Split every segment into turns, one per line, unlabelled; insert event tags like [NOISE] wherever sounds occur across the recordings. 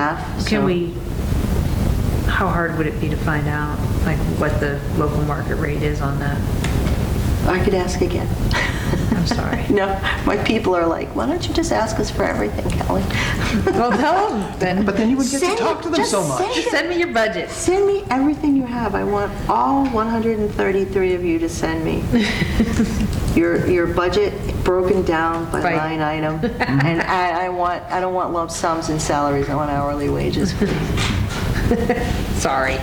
half.
Can
so-
we, how hard would it be to find out, like, what the local market rate is on that?
I could ask again. [LAUGHS]
I'm sorry.
No, my people are like, why don't you just ask us for everything, Kelly?
Well, tell them
But then you would get to talk to them so much.
Send me your budget.
Send me everything you have. I want all 133 of you to send
[LAUGHS]
me your, your budget broken down by
Right.
line
[LAUGHS]
item. And I, I want, I don't want lump sums and salaries, I want hourly wages.
Sorry.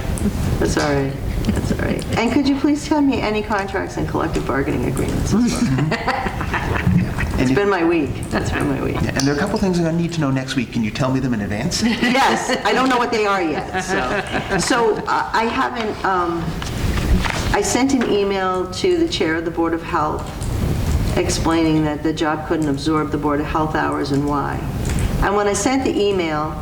That's all right, that's all right. And could you please send me any contracts and collective bargaining agreements as well?
Mm-hmm.
[LAUGHS] It's been my week. That's been my week.
And there are a couple things I'm going to need to know next week. Can you tell me them in advance?
Yes, I don't know what they are yet, so. So uh, I haven't, um, I sent an email to the chair of the Board of Health explaining that the job couldn't absorb the Board of Health hours and why. And when I sent the email,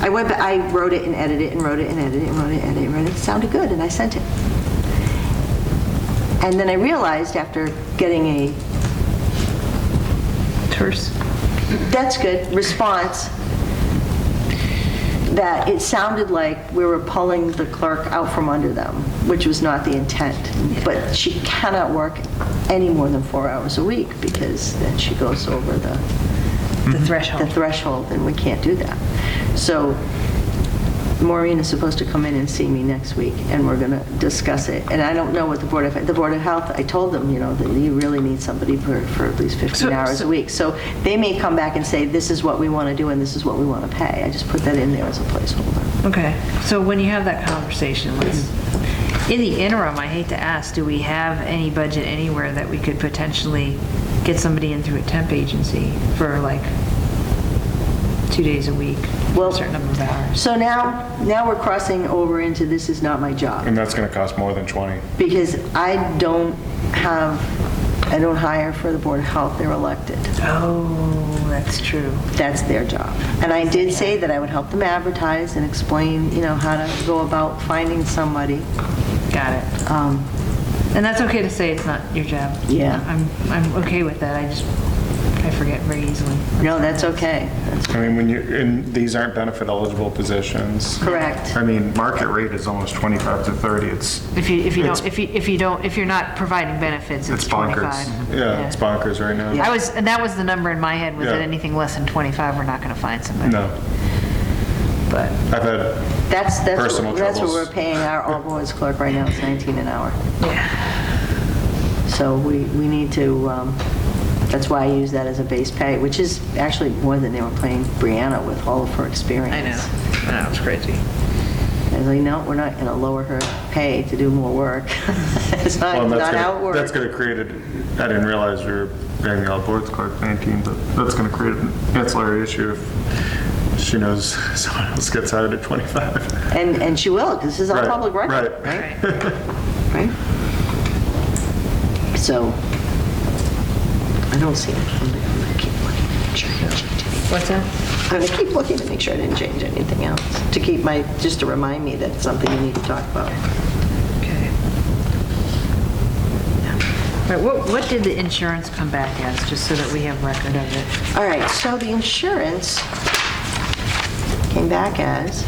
I went, ba- I wrote it and edited it and wrote it and edited it and wrote it and edited it and wrote it. It sounded good, and I sent it. And then I realized after getting a
Terse.
that's good, response, that it sounded like we were pulling the clerk out from under them, which was not the intent. But she cannot work any more than four hours a week, because then she goes over the,
The
the
threshold.
threshold, and we can't do that. So Maureen is supposed to come in and see me next week, and we're going to discuss it. And I don't know what the Board of, the Board of Health, I told them, you know, that you really need somebody for, for at least 15
So-
hours a
so-
week. So they may come back and say, this is what we want to do, and this is what we want to pay. I just put that in there as a placeholder.
Okay, so when you have that conversation, let's, in the interim, I hate to ask, do we have any budget anywhere that we could potentially get somebody in through a temp agency for like two days a week,
Well-
a certain number of hours?
So now, now we're crossing over into this is not my job,
And that's going to cost more than 20.
because I don't have, I don't hire for the Board of Health, they're elected.
Oh, that's true.
that's their job. And I did say that I would help them advertise and explain, you know, how to go about finding somebody.
Got it.
Um,
And that's okay to say it's not your job.
Yeah.
I'm, I'm okay with that, I just, I forget very easily.
No, that's okay. That's
I mean, when you, and these aren't benefit eligible positions.
correct.
I mean, market rate is almost 25 to 30. It's,
If you, if you don't,
It's-
if you, if you don't, if you're not providing benefits, it's
it's bonkers.
25.
Yeah, it's bonkers right now.
I was, and that was the number in my head, was that
Yeah.
anything less than 25, we're not going to find somebody.
No,
But,
I've had,
That's, that's,
Personal
what- that's what
troubles.
we're paying our all boys clerk right now, it's 19 an hour.
yeah,
So we, we need to, um, that's why I use that as a base pay, which is actually more than they were paying Brianna with all of her experience.
I know, that was crazy.
I was like, no, we're not going to lower her pay to do more work. [LAUGHS] It's not,
well, that's
not how it
gonna-
works.
that's going to create, a- I didn't realize we were paying the all boards clerk 19, but that's going to create an ancillary issue if she knows [LAUGHS] someone else gets hired at 25.
And, and she will, 'cause this is all
Right,
public record, right?
right.
[LAUGHS] Right? So, I don't see it. I'm gonna- I'm gonna keep looking to make sure I didn't change anything.
What's that?
I'm gonna keep looking to make sure I didn't change anything else, to keep my, just to remind me that it's something we need to talk about.
Okay. All right, what, what did the insurance come back as, just so that we have record of it?
All right, so the insurance came back as,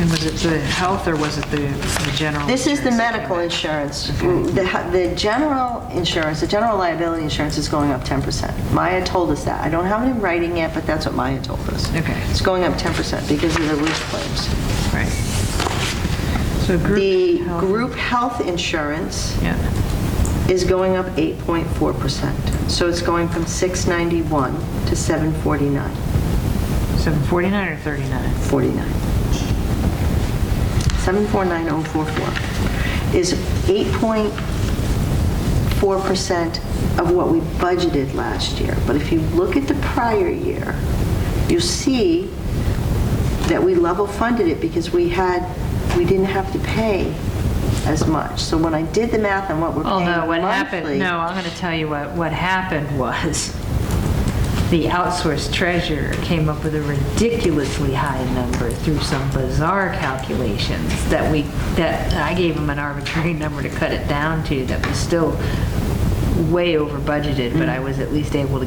And was it the health, or was it the the general?
this is the
insurance that came
medical
back?
insurance. The, the general insurance, the general liability insurance is going up 10%. Maya told us that. I don't have it in writing yet, but that's what Maya told us.
Okay.
It's going up 10% because of the roof claims.
Right. So group.
The
health-
group health insurance
Yeah,
is going up 8.4%. So it's going from 691 to 749,
seven forty-nine or thirty-nine?
49. 749044 is 8.4% of what we budgeted last year. But if you look at the prior year, you see that we level funded it because we had, we didn't have to pay as much. So when I did the math on what we're
Oh,
paying
no, what
monthly-
happened, no, I'm going to tell you what, what happened was [LAUGHS] the outsourced treasurer came up with a ridiculously high number through some bizarre calculations [LAUGHS] that we, that I gave him an arbitrary number to cut it down to that was still
Mm-hmm.
way over budgeted, but I was at least able to